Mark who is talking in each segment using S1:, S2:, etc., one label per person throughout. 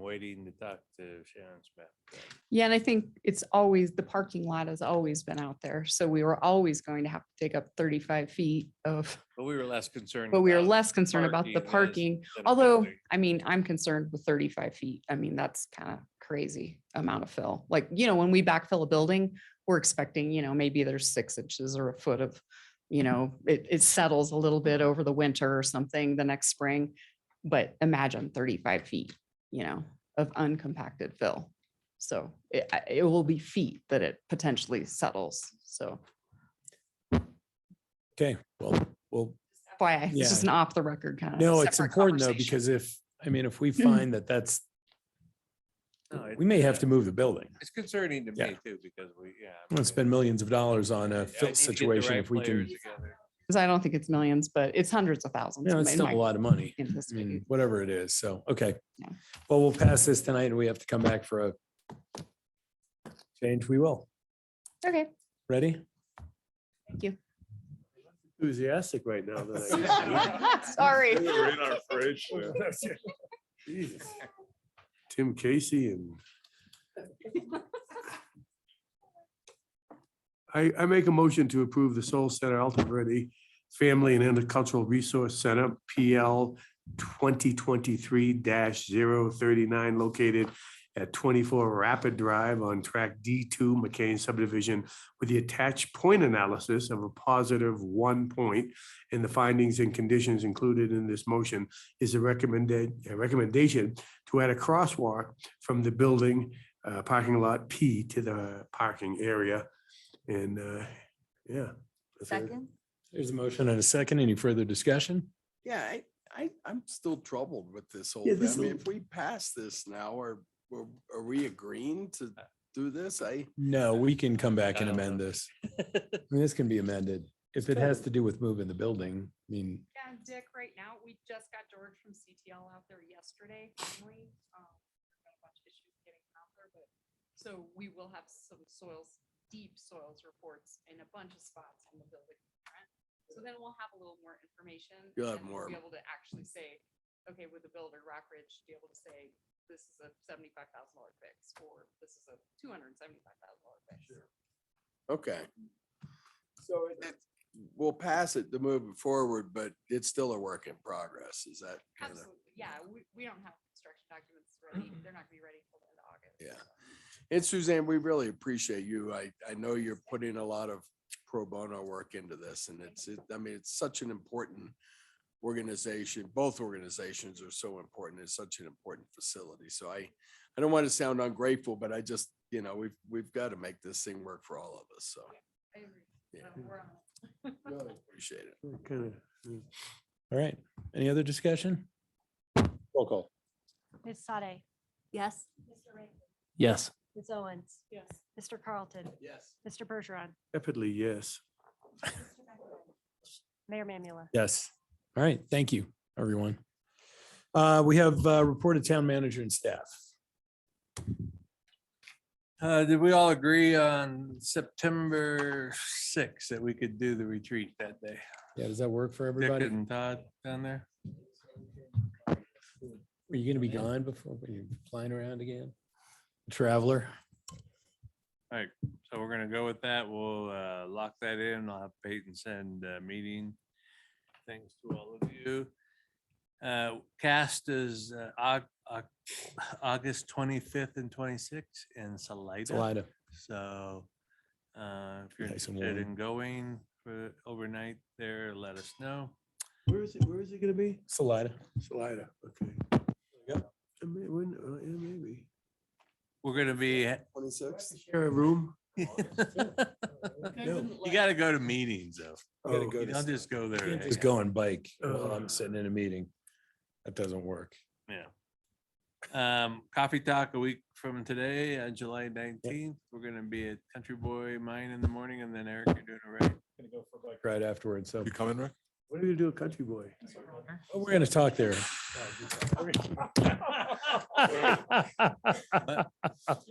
S1: waiting to talk to Sharon Smith.
S2: Yeah, and I think it's always, the parking lot has always been out there, so we were always going to have to dig up thirty-five feet of,
S1: But we were less concerned.
S2: but we were
S1: about
S2: less concerned about the
S1: parking
S2: parking.
S1: than
S2: Although,
S1: building.
S2: I mean, I'm concerned with thirty-five feet. I mean, that's kind of crazy amount of fill. Like, you know, when we backfill a building, we're expecting, you know, maybe there's six inches or a foot of, you
S3: Mm-hmm.
S2: know, it, it settles a little bit over the winter or something the next spring. But imagine thirty-five feet, you know, of uncompacted fill. So it, I- it will be feet that it potentially settles. So
S3: Okay, well, well,
S2: that's why I- it's
S3: Yeah.
S2: just an off the record kind of.
S3: no, it's important though, because if, I mean, if we
S2: Hmm.
S3: find that that's,
S1: No, it-
S3: we may have
S1: yeah.
S3: to move the building.
S1: It's concerning to
S3: Yeah.
S1: me too, because we, yeah. I
S3: We'll
S1: mean,
S3: spend millions of dollars on
S1: I
S3: a
S1: need to
S3: fill
S1: get the
S3: situation
S1: right
S3: if we can,
S1: players together.
S2: Cause I don't think it's millions, but it's hundreds of thousands.
S3: no, it's
S2: in
S3: still
S2: my-
S3: a lot of money.
S2: in this
S3: I mean,
S2: meeting.
S3: whatever it is. So, okay.
S2: Yeah.
S3: Well, we'll pass this tonight and we have to come back for a change. We will.
S2: Okay,
S3: Ready?
S2: thank you.
S4: enthusiastic right now that I used to be.
S2: Sorry.
S4: Jesus. Tim Casey and. I, I make a motion to approve the Soul Center Alta Verde Family and Intercultural Resource Center, PL twenty twenty-three 39 located at twenty-four Rapid Drive on track D two McCain subdivision with the attached point analysis of a positive one point and the findings and conditions included in this motion is a recommended, a recommendation to add a crosswalk from the building uh, parking lot P to the parking area. And, uh, yeah. that's it.
S5: Second?
S3: There's a motion and a second. Any further discussion?
S6: Yeah, I, I, I'm still troubled with this whole
S4: Yeah,
S6: thing.
S4: this
S6: I mean,
S4: will-
S6: if we pass this now, are, are are we agreeing to do this? I,
S3: No, we can come back and
S1: I don't
S3: amend
S1: know.
S3: this. I mean, this can be amended. If it has to do with moving the building, I mean,
S2: Yeah, and Dick, right now, we just got George from CTL out there yesterday, finally. Um, we've got a bunch of issues getting him out there, but- So we will have some soils, deep soils reports in a bunch of spots on the building. front. So then we'll have a little more information. and
S6: You'll have
S2: then
S6: more.
S2: we'll Be able to actually say, okay, with the builder, Rock Ridge, be able to say, this is a seventy-five thousand dollar fix, or this is a two hundred and seventy-five thousand dollar fix.
S6: okay. So it, it- we'll pass it to move it forward, but it's still a work in progress. Is that? kinda-
S2: Absolutely, yeah, we, we don't have construction documents ready, they're not gonna be ready till the end of August.
S6: Yeah. And Suzanne, we really appreciate you. I, I know you're putting a lot of pro bono work into this and it's, it- I mean, it's such an important organization. Both organizations are so important. It's such an important facility. So I, I don't want to sound ungrateful, but I just, you know, we've, we've got to make this thing work for all of us. So
S2: I agree.
S6: Yeah.
S2: Uh, we're on it.
S6: really appreciate it.
S4: Kind of,
S3: all right. Any other discussion? Roll call.
S7: Ms. Sade.
S5: Yes.
S7: Mr. Rankin.
S3: Yes.
S7: Ms. Owens.
S2: Yes.
S7: Mr. Carlton.
S6: Yes.
S7: Mr. Bergeron.
S4: rapidly, yes.
S7: Mayor Mamula.
S3: Yes. All right. Thank you, everyone. Uh, we have uh, reported town manager and staff.
S1: Uh, did we all agree on September sixth that we could do the retreat that day?
S3: Yeah, does that work for
S1: Dick
S3: everybody?
S1: and Todd down there?
S3: Are you going to be gone before are you flying around again? Traveler?
S1: So we're gonna go with that. We'll uh, lock that in. I'll have Peyton send uh meeting. Thanks to all of you. Uh, Cast is uh, Au- Au- August twenty-fifth and twenty-sixth in Salida.
S3: Salida.
S1: So uh, if you're
S3: Nice and
S1: interested
S3: warm.
S1: in going for overnight there, let us know.
S4: Where is it, where is it gonna be?
S3: Salida.
S4: Salida, okay.
S3: you go.
S4: I may- when- uh, yeah, maybe.
S1: We're gonna be.
S6: Twenty-sixth.
S4: Share a room?
S1: You gotta go to meetings though.
S4: Oh,
S1: You don't just go there. and
S3: Just
S1: hang out.
S3: go on bike. while
S4: Uh.
S3: I'm sitting in a meeting. That doesn't work.
S1: Yeah. Um, coffee talk a week from today, uh, July nineteenth, we're gonna be at Country Boy Mine in the morning and then Eric, you're doing it right.
S3: Right afterwards. So
S8: You coming, Rick?
S4: What are you gonna do, a country boy?
S3: Oh, we're going to talk there.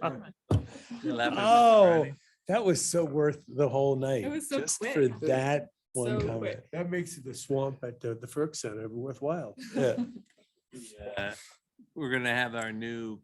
S1: You're laughing at this
S3: Oh,
S1: already.
S3: that was so worth the whole night.
S2: was so
S3: just
S2: quick.
S3: For that one
S2: So
S3: comment.
S2: quick.
S4: That makes the swamp at the the Ferg Center worthwhile.
S3: Yeah.
S1: Uh, We're gonna have our new